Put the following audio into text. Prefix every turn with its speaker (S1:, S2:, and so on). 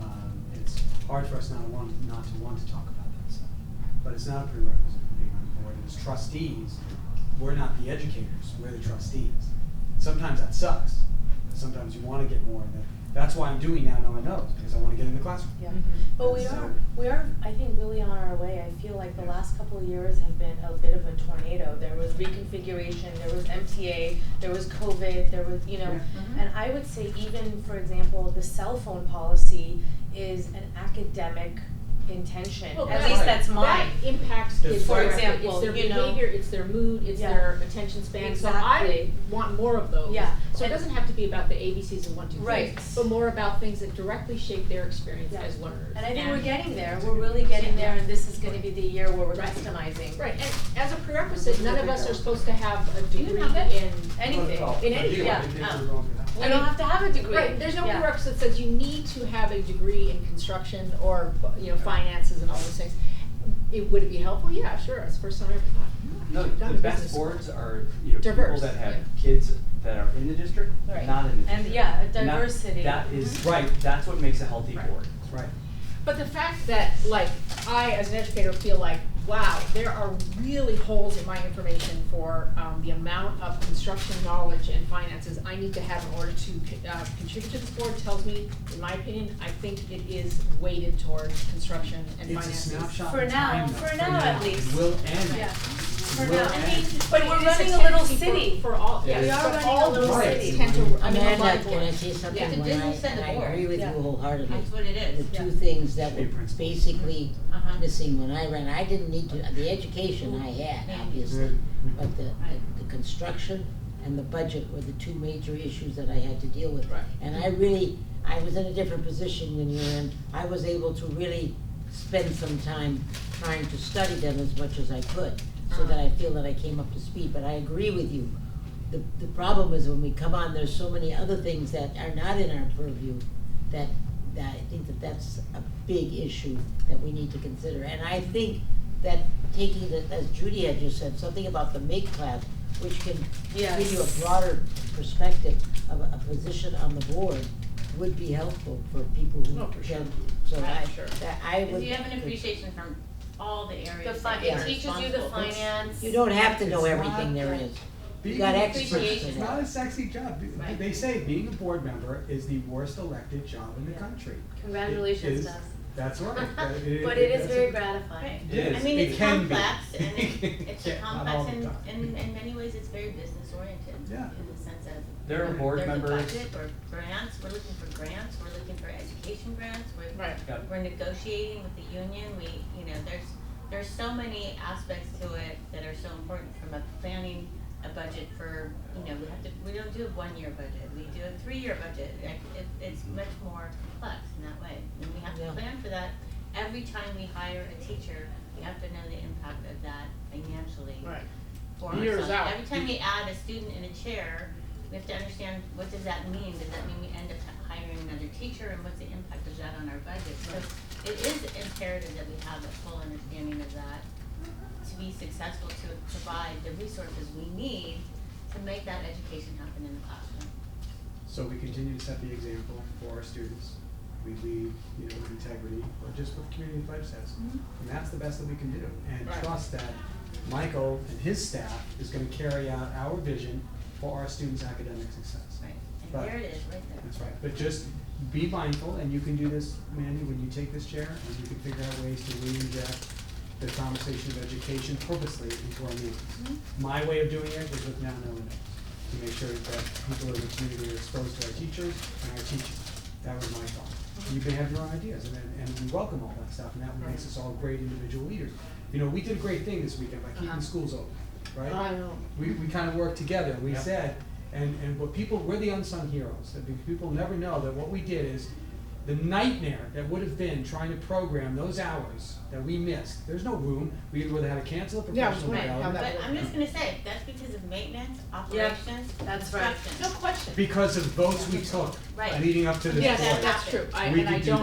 S1: Um, hard for us not to want, not to want to talk about that stuff. But it's not a prerequisite for being on the board, and as trustees, we're not the educators, we're the trustees. Sometimes that sucks, sometimes you wanna get more, and that, that's why I'm doing now, now I know, is because I wanna get in the classroom.
S2: Yeah,
S3: Mm-hmm.
S4: Mhm.
S2: but we
S1: So-
S2: are, we are, I think, really on our way. I feel like the last couple of years have been a bit of a tornado. There was reconfiguration, there was MTA, there was COVID, there was, you know.
S1: Yeah.
S4: Mhm.
S2: And I would say even, for example, the cell phone policy is an academic intention.
S3: Well,
S2: At
S3: that-
S2: least that's mine.
S3: That impacts
S1: That's
S3: kids
S1: For
S3: directly.
S2: example,
S3: It's their
S2: you know-
S3: behavior, it's their mood, it's
S2: Yeah.
S3: their attention span, so I
S2: Exactly.
S3: want more of those.
S2: Yeah.
S3: So it
S2: And-
S3: doesn't have to be about the ABCs and one, two, threes.
S2: Right.
S3: But more about things that directly shape their experience
S2: Yeah.
S3: as learners.
S2: And I think we're getting there. We're really getting there, and this is gonna be the year where we're
S3: Right.
S2: customizing.
S3: Right, and as a prerequisite, none of us are supposed to have a
S2: Do you
S3: degree
S2: have it?
S3: in.
S2: Anything.
S1: Well,
S3: in
S1: I
S3: any-
S1: do, I
S2: yeah,
S1: think
S2: um,
S1: we're going for that.
S2: We don't have to have a degree.
S3: Right, there's no
S2: Yeah.
S3: prerequisite that says you need to have a degree in construction or, you know, finances and all those things. It, would it be helpful? Yeah, sure, it's the first time I ever thought. hmm,
S5: No,
S3: I've done
S5: the
S3: a
S5: best
S3: business school.
S5: boards are, you know, people
S3: Diverse,
S5: that
S3: yeah.
S5: have kids that are in the district,
S3: Right.
S5: not in the district.
S2: And, yeah, a
S5: And that-
S2: diversity.
S5: That is, right, that's what makes a healthy
S3: Right.
S5: board.
S1: Right.
S3: But the fact that, like, I as an educator feel like, wow, there are really holes in my information for um, the amount of construction knowledge and finances I need to have in order to uh, contribute to this board tells me, in my opinion, I think it is weighted towards construction and
S1: It's a
S3: finances.
S1: snapshot
S2: For
S1: in
S2: now-
S1: time, though,
S2: for now at least.
S1: It will end.
S2: Yeah.
S1: It
S2: For
S1: will
S2: now, I mean,
S1: end.
S2: but
S3: it
S2: we're
S3: is
S2: running a little
S3: tendency for-
S2: city.
S3: For all,
S5: It
S3: yes,
S5: is.
S2: We are
S3: but
S2: running a
S3: all
S2: little
S3: boards
S2: city.
S3: tend to, I mean, a lot
S6: Amanda,
S3: of
S6: can I
S3: boards.
S6: say something?
S3: Yeah, the
S6: When
S3: Disney
S6: I-
S3: said the
S6: and
S3: board.
S6: I agree with
S2: Yeah.
S6: you wholeheartedly.
S4: That's what it is.
S2: Yeah.
S6: The two things that
S1: Be
S6: were
S1: principled.
S6: basically
S4: Uh-huh.
S6: missing when I ran, I didn't need to, the education I had, obviously, but the, the construction and the budget were the two major issues that I had to deal with.
S3: Right.
S6: And I really, I was in a different position than you were in. I was able to really spend some time trying to study them as much as I could, so that I feel that I came up to speed, but I agree with you. The, the problem is when we come on, there's so many other things that are not in our purview that, that I think that that's a big issue that we need to consider. And I think that taking the, as Judy had just said, something about the make class, which can give you a
S2: Yes.
S6: broader perspective of a, a position on the board would be helpful for people who
S3: Oh, for sure.
S6: can, so that,
S3: Sure.
S6: that I would.
S4: Because you have an appreciation from all the
S2: The
S4: areas.
S2: fi-
S4: that you
S6: it
S4: are
S2: teaches you the
S4: responsible for.
S2: finance.
S6: You don't have to know
S1: It's
S6: everything
S1: not
S6: there
S1: that-
S6: is.
S1: Being
S6: got
S1: a-
S6: experts
S4: in
S1: It's
S4: that.
S1: not a sexy job. Be-
S4: Right.
S1: They say being a board member is the worst elected job in the
S2: Yeah.
S1: country. It
S2: Congratulations,
S1: is-
S2: Doug.
S1: That's right. That-
S2: But it is
S1: that's
S2: very
S4: Right.
S2: gratifying.
S1: It is.
S4: I mean,
S1: It
S4: it's
S1: can be.
S4: complex and
S1: It
S4: it-
S1: can't,
S4: it's
S1: not all
S4: complex
S1: the
S4: and,
S1: time.
S4: and in many ways, it's very business oriented.
S1: Yeah.
S4: In the sense of.
S5: There are board members,
S4: There's a budget or grants, we're looking for grants, we're looking for education grants, we're,
S3: Right.
S5: Yeah.
S4: we're negotiating with the union, we, you know, there's, there's so many aspects to it that are so important from a planning, a budget for, you know, we have to, we don't do a one-year budget, we do a three-year budget. Like, It, it's much more complex in that way, and we have to
S6: Yeah.
S4: plan for that. Every time we hire a teacher, we have to know the impact of that financially
S3: Right.
S4: for
S3: Years
S4: ourselves.
S3: out.
S4: Every time we add a student in a chair, we have to understand what does that mean? Does that mean we end up hiring another teacher and what's the impact of that on our budget? So it is imperative that we have a full understanding of that to be successful, to provide the resources we need to make that education happen in the classroom.
S1: So we continue to set the example for our students. We lead, you know, with integrity, or just what the community pledge says.
S4: Mm-hmm.
S1: And that's the best that we can do. And
S3: Right.
S1: trust that Michael and his staff is gonna carry out our vision for our students' academic success.
S4: Right, and
S1: Right.
S4: there it is, right there.
S1: That's right, but just be mindful, and you can do this, Mandy, when you take this chair, and you can figure out ways to reinject the conversation of education purposely into our meetings.
S3: Mm-hmm.
S1: My way of doing it is with now knowing it, to make sure that people in the community are exposed to our teachers and our teaching. That was my thought.
S3: Mm-hmm.
S1: You can have your own ideas, and, then- and we welcome all that stuff, and that makes us all great individual leaders. You know, we did a great thing this weekend by keeping
S3: Uh-huh. Oh,
S1: schools open, right?
S3: I know.
S1: we, we kind of worked together, we
S5: Yep.
S1: said, and, and what people, we're the unsung heroes, that because people never know that what we did is the nightmare that would have been trying to program those hours that we missed, there's no room, we either would have had to cancel a
S3: Yeah, I was
S1: professional
S3: wondering
S1: development.
S3: how that
S4: But
S3: worked.
S4: I'm just gonna say, that's because of maintenance, operations,
S2: that's right.
S4: construction.
S3: No question.
S1: Because of votes we took
S4: Right.
S1: leading up to this
S3: Yes,
S1: point.
S3: that's true. I,
S1: We
S3: and
S1: can
S3: I
S1: do
S3: don't